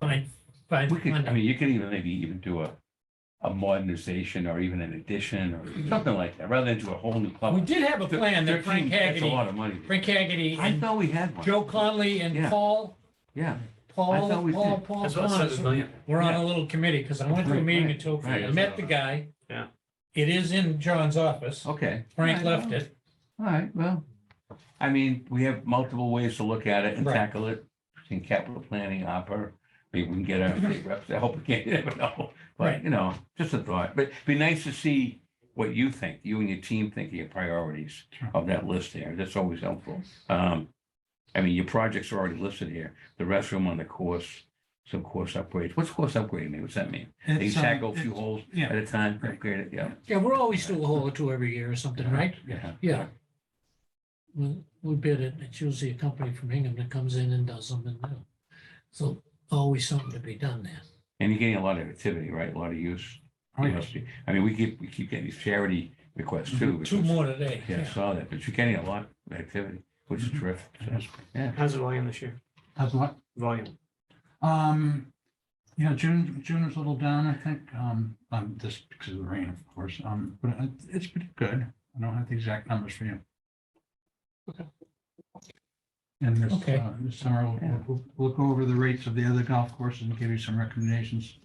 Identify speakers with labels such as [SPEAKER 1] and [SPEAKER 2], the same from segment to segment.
[SPEAKER 1] Fine, fine.
[SPEAKER 2] We could, I
[SPEAKER 1] fine.
[SPEAKER 2] mean, you could even maybe even do a, a modernization or even an addition or something like that, rather than do a whole new club.
[SPEAKER 1] Mm-hmm. We did have a plan that Frank
[SPEAKER 2] That's a
[SPEAKER 1] Hagerty,
[SPEAKER 2] lot of money.
[SPEAKER 1] Frank Hagerty
[SPEAKER 2] I
[SPEAKER 1] and
[SPEAKER 2] thought we had one.
[SPEAKER 1] Joe Conley and
[SPEAKER 2] Yeah.
[SPEAKER 1] Paul,
[SPEAKER 2] Yeah, I thought
[SPEAKER 1] Paul,
[SPEAKER 2] we
[SPEAKER 1] Paul,
[SPEAKER 2] did.
[SPEAKER 1] Paul
[SPEAKER 3] That's what I said, a
[SPEAKER 1] Connors.
[SPEAKER 3] million.
[SPEAKER 1] We're on a little committee because I went to a
[SPEAKER 2] Right,
[SPEAKER 1] meeting
[SPEAKER 2] right,
[SPEAKER 1] in Tokyo.
[SPEAKER 2] right.
[SPEAKER 1] I met the guy.
[SPEAKER 3] Yeah.
[SPEAKER 1] It is in John's office.
[SPEAKER 2] okay.
[SPEAKER 1] Frank
[SPEAKER 2] All Oh. right,
[SPEAKER 1] left
[SPEAKER 2] oh. well,
[SPEAKER 1] it.
[SPEAKER 2] All right, well, I mean, we have multiple ways to look at it and
[SPEAKER 1] Right.
[SPEAKER 2] tackle it in capital planning, opera. Maybe we can get our state reps, I hope we can, you never know.
[SPEAKER 1] Right.
[SPEAKER 2] But, you know, just a thought, but it'd be nice to see what you think, you and your team think of your priorities
[SPEAKER 3] Sure.
[SPEAKER 2] of that list there. That's always helpful. Um, I mean, your projects are already listed here, the restroom on the course, some course upgrades. What's course upgrade mean? What's that mean? They
[SPEAKER 3] It's, um,
[SPEAKER 2] tackle a few
[SPEAKER 3] it's-
[SPEAKER 2] holes
[SPEAKER 3] yeah.
[SPEAKER 2] at a time,
[SPEAKER 3] Right.
[SPEAKER 2] upgrade it, yeah.
[SPEAKER 1] Yeah, we're always do a hole or two every year or something, right?
[SPEAKER 2] Yeah.
[SPEAKER 1] Yeah. We, we bid it. It's usually a company from Hingham that comes in and does them and, you know, so always something to be done there.
[SPEAKER 2] And you're getting a lot of activity, right? A lot of use.
[SPEAKER 3] Oh,
[SPEAKER 2] You
[SPEAKER 3] yeah.
[SPEAKER 2] must be- I mean, we keep, we keep getting these charity requests too.
[SPEAKER 1] Mm-hmm. Two
[SPEAKER 2] because-
[SPEAKER 1] more today.
[SPEAKER 2] Yeah, I saw that, but you're getting a lot of activity, which is terrific. So that's- Yeah,
[SPEAKER 3] How's the volume this year?
[SPEAKER 4] How's what?
[SPEAKER 3] Volume.
[SPEAKER 4] Um, yeah, June, June was a little down, I think, um, um, just because of the rain, of course, um, but it- it's pretty good. I don't have the exact numbers for you.
[SPEAKER 1] Okay.
[SPEAKER 4] And this,
[SPEAKER 1] Okay.
[SPEAKER 4] uh, this summer, we'll- we'll, we'll- we'll go over the rates of the other golf courses and give you some recommendations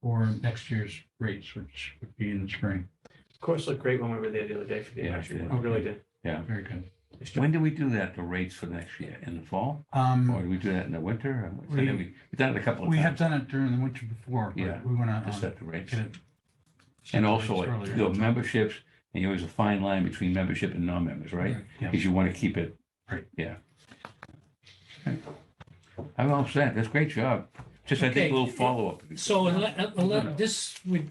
[SPEAKER 4] for next year's rates, which would be in the spring.
[SPEAKER 3] Of course, looked great when we were there the other day for the
[SPEAKER 2] Yeah, it
[SPEAKER 3] actual,
[SPEAKER 2] did.
[SPEAKER 3] it really did.
[SPEAKER 4] Very good.
[SPEAKER 3] Nice job.
[SPEAKER 2] when do we do that, the rates for next year, in the fall? Or
[SPEAKER 4] Um,
[SPEAKER 2] do we do that in the winter? Or what's- I
[SPEAKER 4] We-
[SPEAKER 2] know we- We've done it a couple of
[SPEAKER 4] we have
[SPEAKER 2] times,
[SPEAKER 4] done it during the winter before,
[SPEAKER 2] Yeah,
[SPEAKER 4] but we want
[SPEAKER 2] to
[SPEAKER 4] to
[SPEAKER 2] set the rates.
[SPEAKER 4] get it.
[SPEAKER 2] And also, like,
[SPEAKER 4] Earlier.
[SPEAKER 2] you know, memberships, and there's a fine line between membership and non-members, right?
[SPEAKER 4] Yeah.
[SPEAKER 2] Because you want to keep it.
[SPEAKER 4] Right.
[SPEAKER 2] Yeah. I'm all set. That's a great job. Just, I think,
[SPEAKER 1] Okay.
[SPEAKER 2] a little follow-up.
[SPEAKER 1] So ele- ele- this would,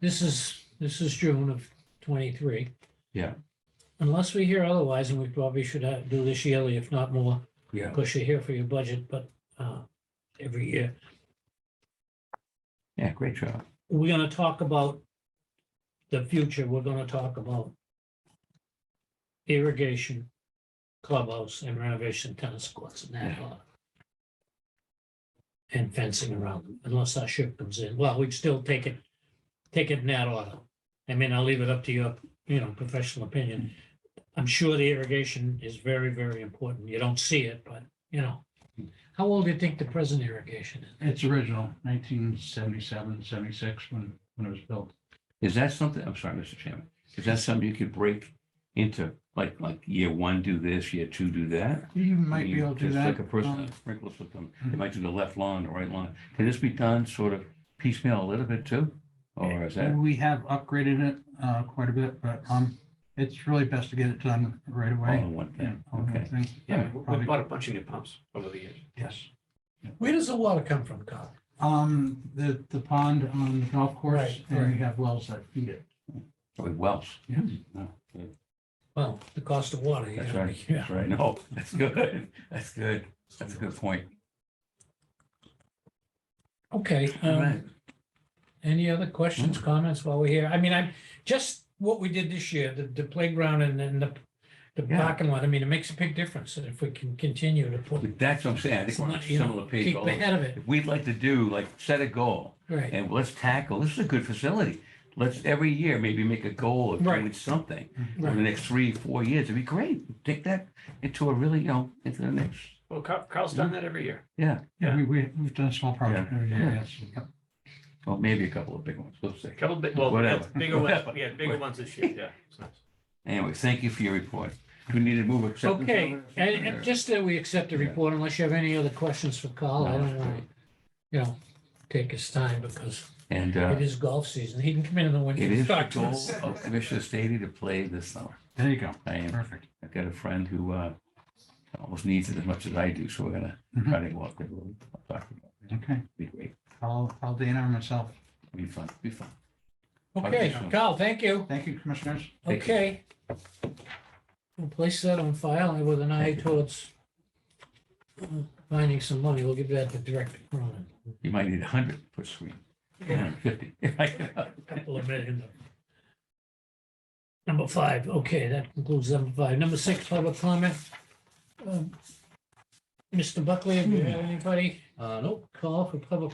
[SPEAKER 1] this is, this is June of twenty-three.
[SPEAKER 2] Yeah.
[SPEAKER 1] Unless we hear otherwise, and we probably should have, do this yearly, if not more,
[SPEAKER 2] Yeah.
[SPEAKER 1] because you're here for your budget, but, uh, every year.
[SPEAKER 2] Yeah, great job.
[SPEAKER 1] We're gonna talk about the future. We're gonna talk about irrigation, clubhouse and renovation tennis courts and that. lot. And fencing around them, unless our ship comes in. Well, we'd still take it, take it in that order. I mean, I'll leave it up to your, you know, professional opinion. I'm sure the irrigation is very, very important. You don't see it, but, you know. How old do you think the present irrigation is?
[SPEAKER 4] It's original, 1977, 76, when, when it was built.
[SPEAKER 2] Is that something, I'm sorry, Mr. Chairman, is that something you could break into, like, like year one, do this, year two, do that?
[SPEAKER 4] You might be able to do
[SPEAKER 2] Just
[SPEAKER 4] that.
[SPEAKER 2] Like a person
[SPEAKER 4] um,
[SPEAKER 2] that sprinkles with them, they might do the left lawn, the right lawn. Can this be done sort of piecemeal a little bit too? Or is that,
[SPEAKER 4] We have upgraded it, uh, quite a bit, but, um, it's really best to get it done right
[SPEAKER 2] all
[SPEAKER 4] away.
[SPEAKER 2] in one
[SPEAKER 4] Yeah,
[SPEAKER 2] thing?
[SPEAKER 4] all in one
[SPEAKER 2] Oh, Okay.
[SPEAKER 4] thing.
[SPEAKER 3] Yeah,
[SPEAKER 2] Oh,
[SPEAKER 3] we- we
[SPEAKER 4] Probably-
[SPEAKER 3] bought a bunch of new pumps over the years.
[SPEAKER 4] Yes.
[SPEAKER 1] Where does the water come from, Carl?
[SPEAKER 4] Um, the, the pond on the golf course,
[SPEAKER 1] Right,
[SPEAKER 4] and we
[SPEAKER 1] right.
[SPEAKER 4] have wells that feed it.
[SPEAKER 2] With wells,
[SPEAKER 4] Yeah.
[SPEAKER 1] Well, the cost of water. you
[SPEAKER 2] that's
[SPEAKER 1] know,
[SPEAKER 2] right,
[SPEAKER 1] yeah.
[SPEAKER 2] that's right. No, that's good, that's good, that's a good point.
[SPEAKER 1] Okay,
[SPEAKER 2] All
[SPEAKER 1] um,
[SPEAKER 2] right.
[SPEAKER 1] any other
[SPEAKER 2] Mm.
[SPEAKER 1] questions, comments while we're here? I mean, I'm, just what we did this year, the, the playground and then the, the
[SPEAKER 2] Yeah.
[SPEAKER 1] parking lot, I mean, it makes a big difference if we can continue to put.
[SPEAKER 2] That's what I'm saying, I think we're on a
[SPEAKER 1] You know,
[SPEAKER 2] similar page.
[SPEAKER 1] keep
[SPEAKER 2] although
[SPEAKER 1] ahead of it,
[SPEAKER 2] if We'd like to do, like, set a goal.
[SPEAKER 1] right,
[SPEAKER 2] And let's tackle, this is a good facility. Let's every year maybe make a goal of doing
[SPEAKER 1] Right.
[SPEAKER 2] something over the
[SPEAKER 1] right,
[SPEAKER 2] next three, four years. It'd be great. Take that into a really, you know, into the next,
[SPEAKER 3] Well, Carl- Carl's done that every year.
[SPEAKER 2] yeah,
[SPEAKER 4] Yeah, we, we, we've done a small project.
[SPEAKER 2] Yeah.
[SPEAKER 4] every year, yes.
[SPEAKER 2] well, maybe a couple of big ones. We'll see.
[SPEAKER 3] A Couple big, well,
[SPEAKER 2] Whatever.
[SPEAKER 3] bigger ones,
[SPEAKER 2] Whatever.
[SPEAKER 3] yeah, bigger ones this year, yeah. It's nice.
[SPEAKER 2] Anyway, thank you for your report. Do we need to move acceptance? of
[SPEAKER 1] okay,
[SPEAKER 2] it?
[SPEAKER 1] and, and just that we accept the
[SPEAKER 2] Yeah.
[SPEAKER 1] report unless you have any other questions for Carl, I
[SPEAKER 2] No,
[SPEAKER 1] don't
[SPEAKER 2] that's
[SPEAKER 1] wanna,
[SPEAKER 2] great.
[SPEAKER 1] you know, take his time because
[SPEAKER 2] And uh,
[SPEAKER 1] it is golf season, he can come in in the winter.
[SPEAKER 2] it
[SPEAKER 1] and
[SPEAKER 2] is the
[SPEAKER 1] talk to
[SPEAKER 2] goal
[SPEAKER 1] us.
[SPEAKER 2] of Commissioner Stady to play this summer.
[SPEAKER 4] There you go.
[SPEAKER 2] I am,
[SPEAKER 4] Perfect.
[SPEAKER 2] I've got a friend who uh, almost needs it as much as I do, so we're gonna
[SPEAKER 1] Mm-hmm.
[SPEAKER 2] try to walk it. We'll talk about it.
[SPEAKER 4] Okay.
[SPEAKER 2] Be great.
[SPEAKER 4] I'll, I'll Dana or myself.
[SPEAKER 2] Be fun, be fun.
[SPEAKER 1] Okay, Carl, thank you.
[SPEAKER 4] Thank you, commissioners.
[SPEAKER 2] Thank you.
[SPEAKER 1] Okay. We'll place that on file and with an eye
[SPEAKER 2] Thank you.
[SPEAKER 1] towards uh, finding some money. We'll give that to Director Cronin.
[SPEAKER 2] You might need a hundred per screen.
[SPEAKER 1] Yeah,
[SPEAKER 2] 150.
[SPEAKER 1] a Couple of million. Number five, okay, that concludes number five. Number
[SPEAKER 2] Hmm.
[SPEAKER 1] six, public comment. Um, Mr. Buckley, do you have anybody? Uh, no call for public